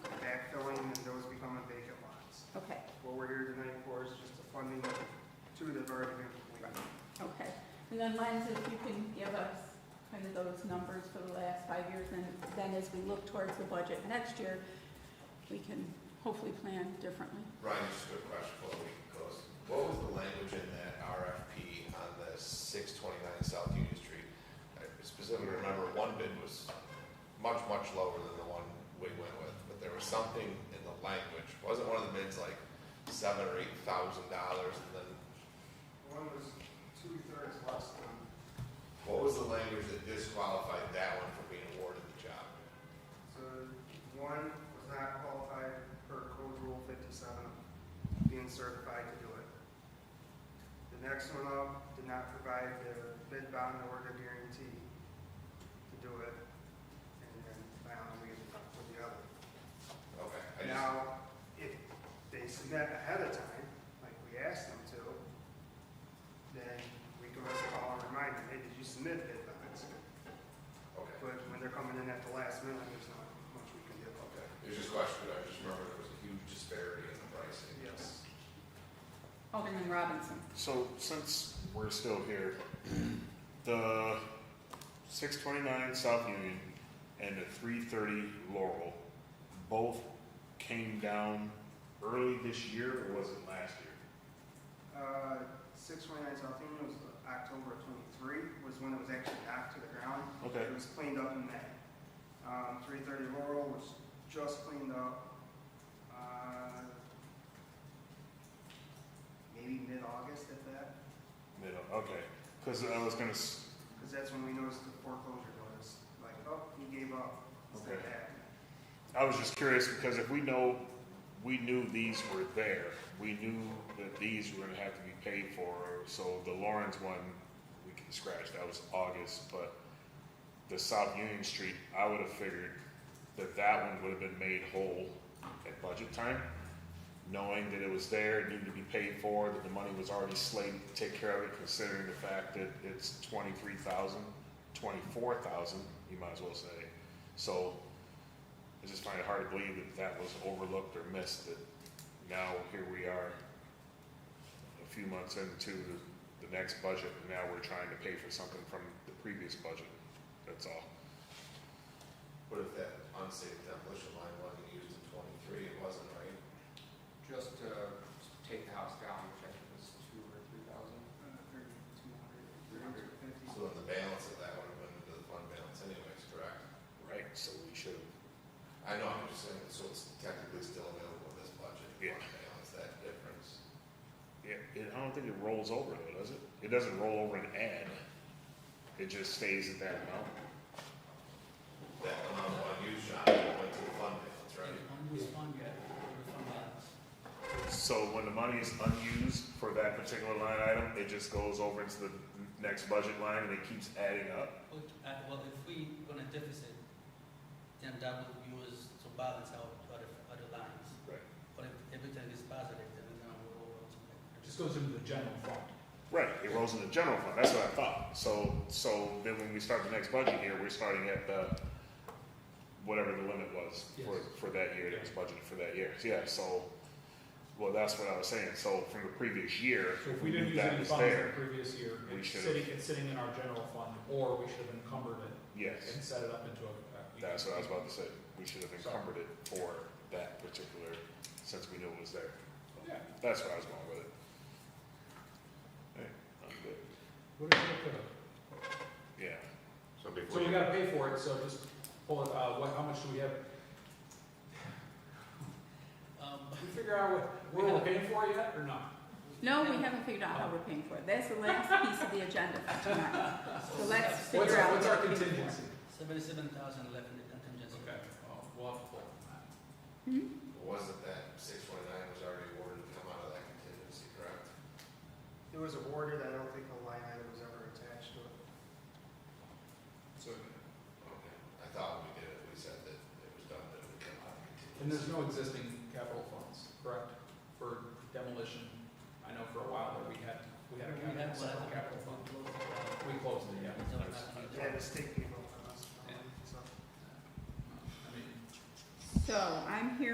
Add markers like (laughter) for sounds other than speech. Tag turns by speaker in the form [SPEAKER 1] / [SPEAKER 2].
[SPEAKER 1] then Lenz, if you can give us kind of those numbers for the last five years, and then as we look towards the budget next year, we can hopefully plan differently.
[SPEAKER 2] Ryan, just a quick question before the week goes. What was the language in that RFP on the six twenty-nine South Union Street? I specifically remember one bid was much, much lower than the one we went with, but there was something in the language. Wasn't one of the bids like seven or eight thousand dollars and then,
[SPEAKER 3] One was two-thirds less than,
[SPEAKER 2] what was the language that disqualified that one from being awarded the job?
[SPEAKER 3] so one was not qualified per code rule fifty-seven, being certified to do it. The next one up did not provide the bid bond or the guarantee to do it, and then finally we ended up with the other.
[SPEAKER 2] Okay, I just,
[SPEAKER 3] Now, if they submit ahead of time, like we asked them to, then we can always call and remind them, hey, did you submit bid bonds?
[SPEAKER 2] okay,
[SPEAKER 3] But when they're coming in at the last minute, there's not much we can do about
[SPEAKER 2] okay. It was just a question, I just remember there was a huge disparity in the pricing.
[SPEAKER 3] that. Yes.
[SPEAKER 1] Alderman Robinson.
[SPEAKER 4] So since we're still here, (clears throat) the six twenty-nine South Union and the three thirty Laurel both came down early this year or was it last year?
[SPEAKER 3] Uh, six twenty-nine South Union was October twenty-three, was when it was actually knocked to the ground.
[SPEAKER 4] Okay,
[SPEAKER 3] It was cleaned up in May. Um, three thirty Laurel was just cleaned up, uh, maybe mid-August at that,
[SPEAKER 4] middle, okay, cause I was gonna, s-
[SPEAKER 3] because that's when we noticed the foreclosure notice, like, oh, he gave up, it's not
[SPEAKER 4] Okay.
[SPEAKER 3] happening.
[SPEAKER 4] I was just curious because if we know, we knew these were there, we knew that these were gonna have to be paid for, so the Lawrence one, we can scratch, that was August, but the South Union Street, I would have figured that that one would have been made whole at budget time, knowing that it was there, it needed to be paid for, that the money was already slated to take care of it, considering the fact that it's twenty-three thousand, twenty-four thousand, you might as well say. So I just find it hard to believe that that was overlooked or missed, that now here we are a few months into the, the next budget, and now we're trying to pay for something from the previous budget. That's all.
[SPEAKER 2] What if that unsafe demolition line wasn't used in twenty-three, it wasn't, right?
[SPEAKER 5] Just to take the house down, which I think was two or three thousand.
[SPEAKER 3] Uh, thirty-two hundred,
[SPEAKER 5] Three hundred.
[SPEAKER 3] fifty.
[SPEAKER 2] So then the balance of that would have went into the fund balance anyways, correct?
[SPEAKER 4] Right. So we should,
[SPEAKER 2] I know, I'm just saying, so it's technically still available in this budget, the
[SPEAKER 4] Yeah.
[SPEAKER 2] fund balance, that difference.
[SPEAKER 4] yeah, it, I don't think it rolls over though, does it? It doesn't roll over and add. It just stays at that amount.
[SPEAKER 2] That amount of unused shop went to the fund balance, right?
[SPEAKER 4] So when the money is unused for that particular line item, it just goes over into the next budget line and it keeps adding up.
[SPEAKER 6] Well, uh, well, if we gonna deficit, then that will be used to balance out other, other lines.
[SPEAKER 4] Right.
[SPEAKER 6] But if everything is positive, then we're gonna roll over to
[SPEAKER 7] It
[SPEAKER 6] like.
[SPEAKER 7] just goes into the general fund.
[SPEAKER 4] Right, it rolls in the general fund, that's what I thought. So, so then when we start the next budget year, we're starting at the, whatever the limit was for,
[SPEAKER 7] Yes.
[SPEAKER 4] for that year, that was budgeted for that year. Yeah, so, well, that's what I was saying, so from the previous year,
[SPEAKER 7] So if we didn't use
[SPEAKER 4] that
[SPEAKER 7] any
[SPEAKER 4] was
[SPEAKER 7] funds in the
[SPEAKER 4] there.
[SPEAKER 7] previous year,
[SPEAKER 4] We
[SPEAKER 7] it's
[SPEAKER 4] should've-
[SPEAKER 7] sitting, it's sitting in our general fund, or we should have encumbered it
[SPEAKER 4] Yes,
[SPEAKER 7] and set it up into a.
[SPEAKER 4] that's what I was about to say, we should have encumbered it for that particular, since we knew it was there.
[SPEAKER 7] Yeah.
[SPEAKER 4] That's where I was going with it. Hey, I'm good,
[SPEAKER 7] What if we could have?
[SPEAKER 4] yeah.
[SPEAKER 2] So
[SPEAKER 7] So we gotta pay for it, so just pull it, uh, what, how much do we have?
[SPEAKER 6] Um,
[SPEAKER 7] Can we figure out what, what we're paying for yet, or not?
[SPEAKER 1] No, we haven't figured out how we're paying for it. That's the last piece of the agenda for tonight. So let's
[SPEAKER 7] What's
[SPEAKER 1] figure
[SPEAKER 7] our,
[SPEAKER 1] out.
[SPEAKER 7] what's our
[SPEAKER 1] what we're paying for.
[SPEAKER 7] contingency?
[SPEAKER 6] Seventy-seven thousand left in the contingency.
[SPEAKER 7] Okay, Oh, well, we'll have to pull it.
[SPEAKER 2] Wasn't that six twenty-nine was already awarded to come out of that contingency, correct?
[SPEAKER 3] It was awarded, I don't think a line item was ever attached to it.
[SPEAKER 7] So,
[SPEAKER 2] Okay. I thought we did it, we said that it was done, that it would come out of contingency.
[SPEAKER 7] And there's no existing capital funds, correct, for demolition? I know for a while that we had, we had a
[SPEAKER 6] We had
[SPEAKER 7] capital,
[SPEAKER 6] one.
[SPEAKER 7] separate capital fund.
[SPEAKER 6] Close it out.
[SPEAKER 7] We closed it, yeah.
[SPEAKER 6] Don't have any-
[SPEAKER 3] Yeah, the state gave up on us, um, so.
[SPEAKER 7] I mean,
[SPEAKER 1] So I'm here